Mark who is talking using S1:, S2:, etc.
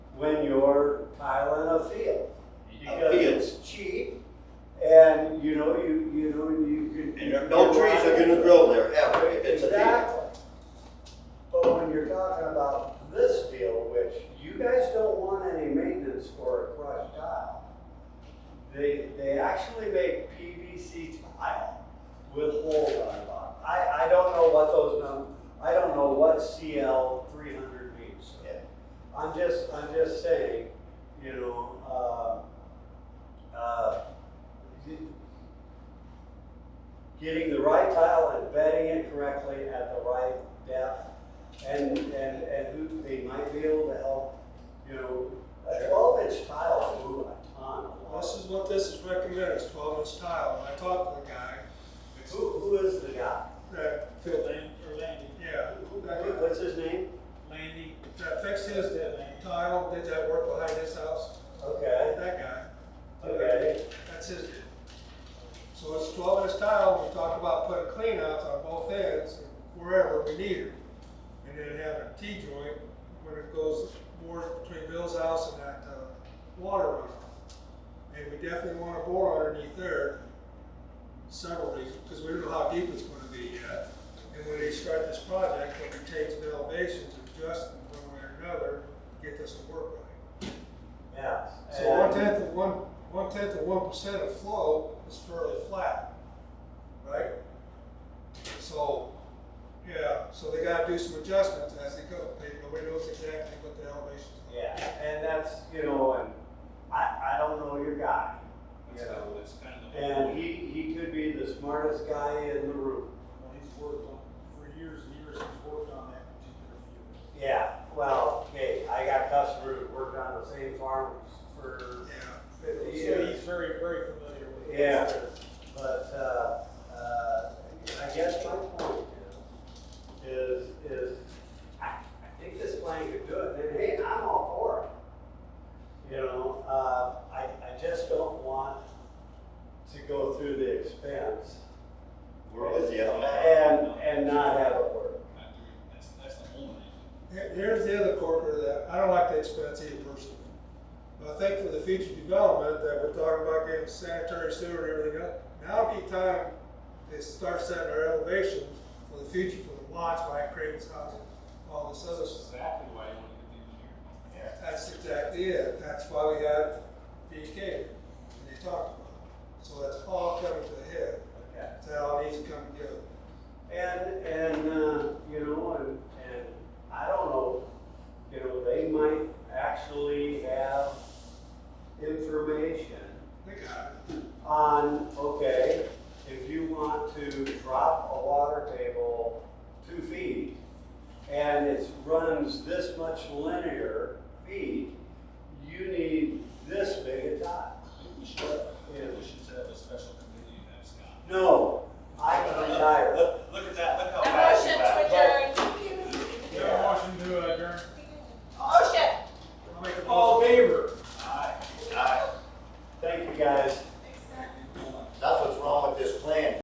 S1: when you're piling a field.
S2: A
S1: Because
S2: field,
S1: it's cheap and you know, you, you know, you can.
S2: and there- no trees are gonna grow there ever if it's a field.
S1: Exactly. But when you're talking about this field, which you guys don't want any maintenance for a crushed tile. They, they actually make PVC tile with holes on the bottom. I, I don't know what those num, I don't know what CL three hundred means.
S2: Yeah.
S1: I'm just, I'm just saying, you know, uh, uh, getting the right tile and bedding it correctly at the right depth. And, and, and who, they might be able to help, you know, a twelve inch tile will move a ton. of
S3: This
S1: load.
S3: is what this is recommended, it's twelve inch tile, and I talked to the guy, it's
S1: Who, who is the guy?
S3: that filled,
S4: Land, or Landy,
S3: yeah,
S1: Who-
S3: that,
S1: What's his name?
S4: Landy,
S3: that fixed his tile, did that work behind his house,
S1: Okay,
S3: that guy,
S1: okay,
S3: that's his deal. So it's twelve inch tile, we talked about putting cleanouts on both ends, wherever we need it. And then have a T joint when it goes more between Bill's house and that, uh, water runoff. And we definitely wanna bore underneath there, several reasons, because we don't know how deep it's gonna be yet. And when they start this project, when we take some elevations, adjust them one way or another, get this to work right.
S1: yes.
S3: So one tenth of one, one tenth of one percent of flow is fairly flat, right? So, yeah, so they gotta do some adjustments as they go, they, nobody knows exactly what the elevation's gonna
S1: Yeah, and that's, you know, and I, I don't know your guy.
S4: that's kind of, that's kind of the whole.
S1: And he, he could be the smartest guy in the room.
S4: Well, he's worked on, for years and years, he's worked on that particular field.
S1: Yeah, well, hey, I got customers that worked on the same farms for,
S3: be. Yeah,
S1: fifty
S4: So
S1: years.
S4: he's very, very familiar with it.
S1: Yeah. but, uh, uh, I guess my point is, is, is I, I think this plan could do it, and hey, I'm all for it. You know, uh, I, I just don't want to go through the expense
S2: We're with you on that.
S1: and, and not have it work.
S4: Not doing- That's, that's the whole thing.
S3: Here- here's the other corner that, I don't like the expense either personally. But I think for the future development, that we're talking about getting sanitary sewer and everything else, now would be time to start setting our elevations for the future for the lots by Craven's House, and all this other stuff.
S4: That's exactly why I wanted to get the engineer.
S3: That's exactly it, that's why we had BK, and they talked about it. So that's all coming to the head,
S1: Okay.
S3: that all needs to come together.
S1: And, and, uh, you know, and, and I don't know, you know, they might actually have information
S3: They got it.
S1: on, okay, if you want to drop a water table two feet and it runs this much linear feet, Oh,
S4: uh,